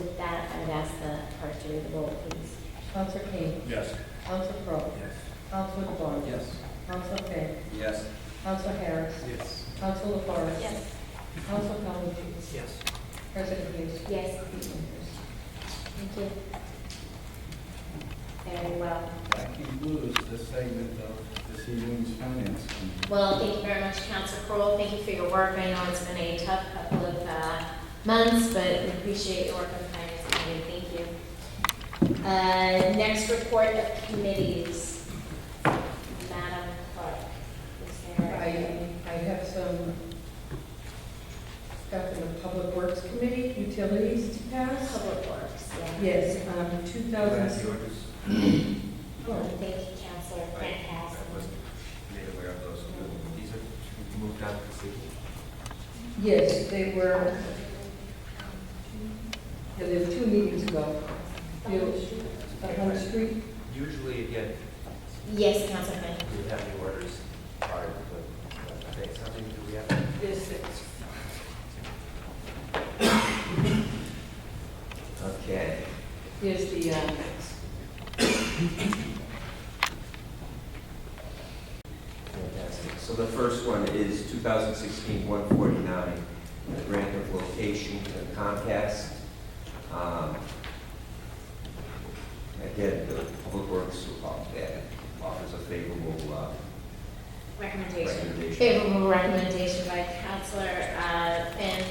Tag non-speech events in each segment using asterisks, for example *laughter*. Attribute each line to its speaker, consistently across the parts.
Speaker 1: With that, I would ask the clerk to read the roll, please.
Speaker 2: Counsel King.
Speaker 3: Yes.
Speaker 2: Counsel Crowe.
Speaker 3: Yes.
Speaker 2: Counsel DeBon.
Speaker 3: Yes.
Speaker 2: Counsel Finn.
Speaker 3: Yes.
Speaker 2: Counsel Harris.
Speaker 3: Yes.
Speaker 2: Counsel LaFars.
Speaker 1: Yes.
Speaker 2: Counsel Calhoun.
Speaker 3: Yes.
Speaker 2: President Hughes.
Speaker 1: Yes, thank you. Very well.
Speaker 4: That concludes the segment of this evening's finance committee.
Speaker 1: Well, thank you very much, Council Crowell. Thank you for your work. I know it's been a tough couple of uh, months, but we appreciate your work on finance committee. Thank you. Uh, Next report of committees. Madam Clerk, is there?
Speaker 2: I, I have some stuff in the Public Works Committee, utilities to pass.
Speaker 1: Public Works, yeah.
Speaker 2: Yes, um, two thousand,
Speaker 3: orders.
Speaker 2: oh,
Speaker 1: Thank you, Councilor Fantastic.
Speaker 3: I wasn't made aware of those. These are moved out to the city.
Speaker 2: yes, they were, yeah, they were two meetings ago. Bill, the Home Street,
Speaker 3: Usually, again,
Speaker 1: Yes, Councilor Fantastic.
Speaker 3: we have the orders prior to the, uh, okay, something, do we have?
Speaker 2: there's six.
Speaker 3: Okay.
Speaker 2: Here's the, uh,
Speaker 5: Fantastic. So the first one is 2016-149, the grant of location to Comcast. Um, Again, the Public Works off- that offers a favorable uh,
Speaker 1: Recommendation.
Speaker 5: recommendation.
Speaker 1: Favorable recommendation by Counselor uh, Finn,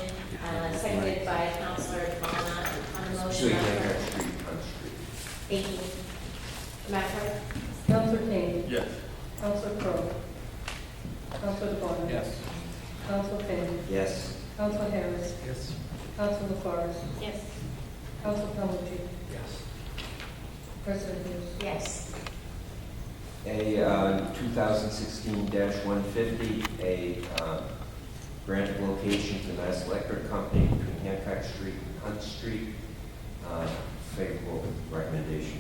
Speaker 1: uh, seconded by Counselor Vaughn on the
Speaker 5: So
Speaker 1: motion.
Speaker 5: you can have street on street.
Speaker 1: Thank you. Madam Clerk?
Speaker 2: Counselor King,
Speaker 4: Yes.
Speaker 2: Counselor Crowe, Counselor DeBon.
Speaker 4: Yes.
Speaker 2: Counselor Finn,
Speaker 5: Yes,
Speaker 2: Counselor Harris,
Speaker 3: Yes.
Speaker 2: Counselor LaFars,
Speaker 1: Yes.
Speaker 2: Counselor Calhoun,
Speaker 3: Yes.
Speaker 2: President Hughes.
Speaker 1: Yes.
Speaker 5: a uh, 2016-150, a um, grant of location to Mass Electric Company between Hancock Street and Hunt Street. Uh, Favorable recommendation.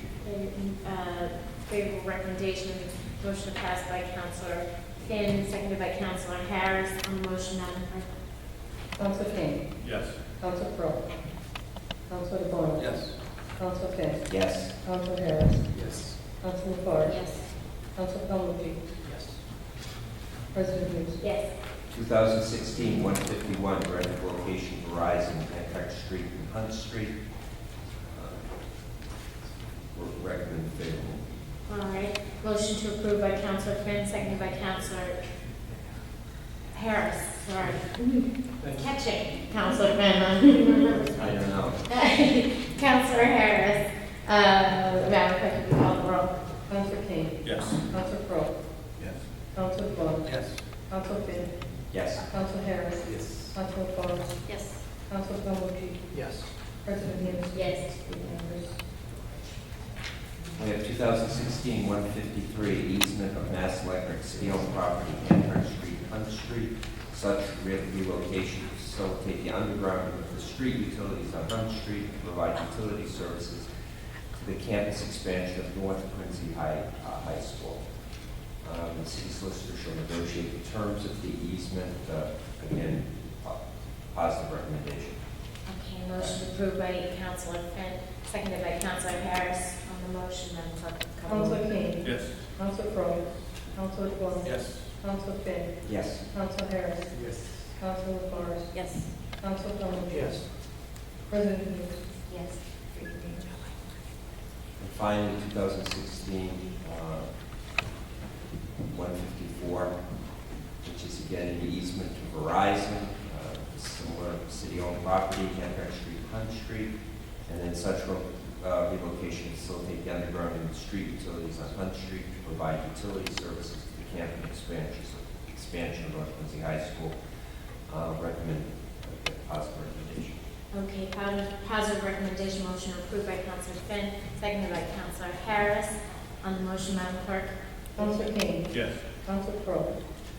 Speaker 1: Uh, Favorable recommendation, motion passed by Counselor Finn, seconded by Counselor Harris on the motion. Madam Clerk?
Speaker 2: Counsel Kane.
Speaker 4: Yes.
Speaker 2: Counsel Crowe. Counsel DeBon.
Speaker 4: Yes.
Speaker 2: Counsel Finn.
Speaker 5: Yes.
Speaker 2: Counsel Harris.
Speaker 3: Yes.
Speaker 2: Counsel LaFars.
Speaker 1: Yes.
Speaker 2: Counsel Calhoun.
Speaker 3: Yes.
Speaker 2: President Hughes.
Speaker 1: Yes.
Speaker 5: 2016-151, grant of location Verizon, Hancock Street and Hunt Street. Uh, re- Recommend favorable.
Speaker 1: All right, motion to approve by Counselor Finn, seconded by Counselor Harris, sorry. Catching, Counselor Finn.
Speaker 5: I don't know.
Speaker 1: *laughs* Counselor Harris, uh, Madam Clerk, if you call the roll.
Speaker 2: Counsel Kane.
Speaker 4: Yes.
Speaker 2: Counsel Crowe.
Speaker 4: Yes.
Speaker 2: Counsel DeBon.
Speaker 4: Yes.
Speaker 2: Counsel Finn.
Speaker 5: Yes.
Speaker 2: Counsel Harris.
Speaker 3: Yes.
Speaker 2: Counsel LaFars.
Speaker 1: Yes.
Speaker 2: Counsel Calhoun.
Speaker 3: Yes.
Speaker 2: President Hughes.
Speaker 1: Yes.
Speaker 2: Members.
Speaker 5: We have 2016-153, easement of Mass Electric City-owned property, Hancock Street and Hunt Street. Such re- relocation to facilitate the undergrounding of the street utilities on Hunt Street and provide utility services to the campus expansion of North Quincy High, uh, High School. Um, The city solicitor shall negotiate the terms of the easement. Uh, Again, po- positive recommendation.
Speaker 1: Okay, motion approved by Counselor Finn, seconded by Counselor Harris on the motion, Madam Clerk. call the roll.
Speaker 2: Counsel Kane.
Speaker 4: Yes.
Speaker 2: Counsel Crowe. Counsel DeBon.
Speaker 4: Yes.
Speaker 2: Counsel Finn.
Speaker 5: Yes.
Speaker 2: Counsel Harris.
Speaker 3: Yes.
Speaker 2: Counsel LaFars.
Speaker 1: Yes.
Speaker 2: Counsel Calhoun.
Speaker 3: Yes.
Speaker 2: President Hughes.
Speaker 1: Yes.
Speaker 5: And finally, 2016, uh, 154, which is again an easement to Verizon, uh, similar city-owned property, Hancock Street, Hunt Street, and then such ro- uh, relocation to facilitate the underground and street utilities on Hunt Street to provide utility services to the campus expansion, expansion of North Quincy High School. Uh, Recommend, uh, positive recommendation.
Speaker 1: Okay, positive- positive recommendation, motion approved by Counselor Finn, seconded by Counselor Harris. On the motion, Madam Clerk?
Speaker 2: Counsel Kane.
Speaker 4: Yes.
Speaker 2: Counsel Crowe.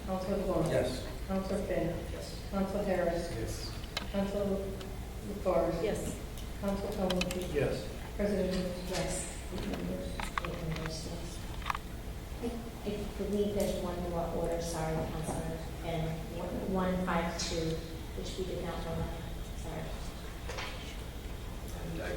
Speaker 2: Counsel DeBon.
Speaker 4: Yes.
Speaker 2: Counsel Finn.
Speaker 5: Yes.
Speaker 2: Counsel Harris.
Speaker 3: Yes.
Speaker 2: Counsel LaFars.
Speaker 1: Yes.
Speaker 2: Counsel Calhoun.
Speaker 3: Yes.
Speaker 2: President Hughes.
Speaker 1: Yes. Eight members, yes. I I believe there's one more order, sorry, Counselor Finn, one five two, which we did not vote on.